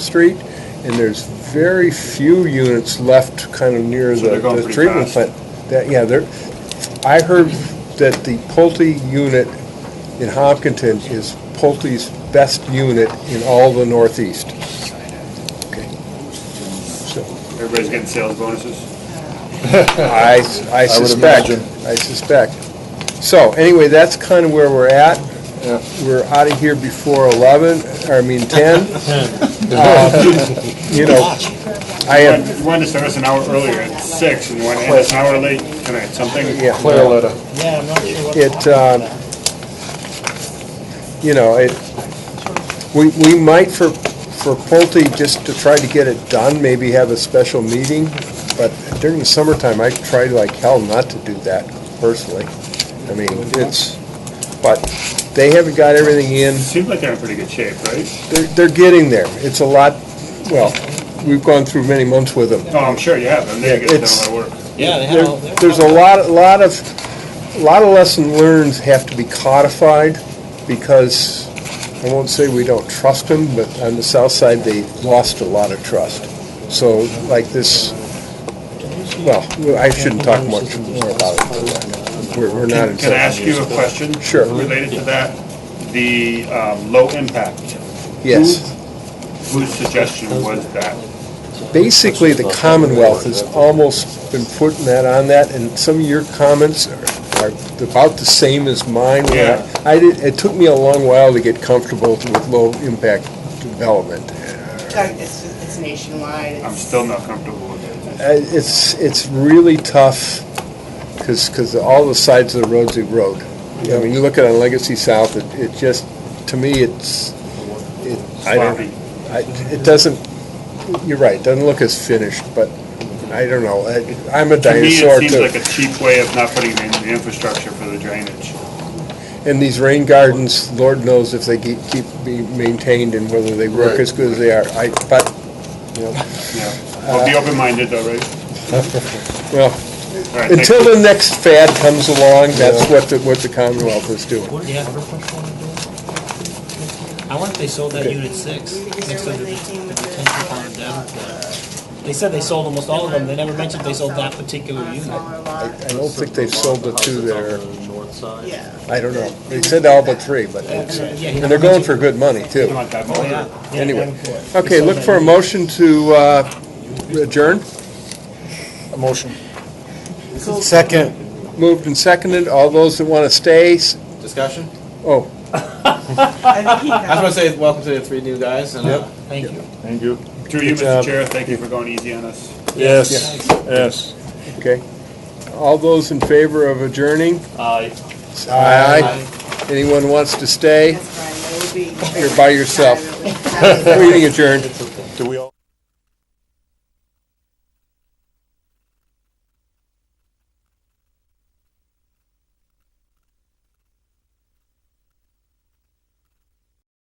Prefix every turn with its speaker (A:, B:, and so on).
A: Street, and there's very few units left kind of near
B: So
A: the
B: they're going
A: the
B: pretty
A: treatment
B: fast.
A: plant. That, yeah, there, I heard that the Pulte unit in Hopkinton is Pulte's best unit in all the Northeast. Okay. So,
B: Everybody's getting sales bonuses?
A: I, I suspect, I suspect. So, anyway, that's kind of where we're at. We're out of here before 11, or I mean 10. Um, You know, I
B: You
A: have
B: wanted- you wanted to start us an hour earlier at six, and you want to end us an hour late tonight, something?
A: Yeah.
C: Clear letter.
D: Yeah, I'm not sure what.
A: It, uh, you know, it, we, we might for, for Pulte, just to try to get it done, maybe have a special meeting, but during the summertime, I try like hell not to do that personally. I mean, it's, but they haven't got everything in,
B: It seems like they're in pretty good shape, right?
A: they're, they're getting there. It's a lot, well, we've gone through many months with them.
B: Oh, I'm sure you have, I'm
A: Yeah,
B: getting done
A: it's-
B: my work.
D: Yeah, they had all.
A: There- There's a lot, a lot of, a lot of lesson learned have to be codified, because, I won't say we don't trust them, but on the south side, they lost a lot of trust. So, like this, well, I shouldn't talk much more about it. We're, we're not in.
B: Can I ask you a question?
A: Sure.
B: Related to that, the um, low impact,
A: Yes.
B: whose suggestion was that?
A: Basically, the Commonwealth has almost been putting that on that, and some of your comments are are about the same as mine.
B: Yeah.
A: I did, it took me a long while to get comfortable with low-impact development.
E: It's, it's nationwide.
B: I'm
E: It's-
B: still not comfortable with
A: Uh,
B: it.
A: It's, it's really tough, because, because all the sides of the roads erode. I mean, you look at it on Legacy South, it, it just, to me, it's, it, I don't,
B: Sloppy.
A: I- It doesn't, you're right, it doesn't look as finished, but I don't know. I- I'm a
B: To me,
A: dinosaur
B: it seems
A: too.
B: like a cheap way of not putting in the infrastructure for the drainage.
A: And these rain gardens, Lord knows if they keep, keep being maintained and whether they work
C: Right.
A: as good as they are. I, but, you know,
B: Yeah. Well,
A: Uh,
B: be open-minded though, right?
A: well,
B: All right, thank
A: until
B: you.
A: the next fad comes along, that's what the, what the Commonwealth is doing.
D: Yeah. I wonder if they sold that unit six, next to the, the detention pond down there. They said they sold almost all of them, they never mentioned they sold that particular
E: On a
D: unit.
E: smaller lot.
A: I don't think they've sold the two that are,
C: north side.
E: Yeah.
A: I don't know. They said all but three, but, it's-
D: Yeah, he
A: and
D: never
A: they're going
D: mentioned-
A: for good money too.
B: Come on, Todd,
D: Oh,
B: Mulder.
D: yeah. Yeah,
A: Anyway.
D: they sold that
A: Okay, look for a
D: unit.
A: motion to uh, adjourn.
C: Motion.
E: Cool.
C: Second.
A: Moved and seconded. All those that want to stay, s-
F: discussion.
A: oh,
E: I think he
F: I just
E: got
F: want to say welcome to the three new guys. And, uh,
D: Thank you.
C: Thank you.
B: Through you,
A: Good job.
B: Mr. Chair, thank you for going easy on us.
C: Yes, yes.
A: Okay. All those in favor of adjourning?
C: Aye.
A: Aye. Anyone wants to stay?
E: That's fine. That would be-
A: You're by yourself.
E: That was-
A: Meeting adjourned.
C: It's okay.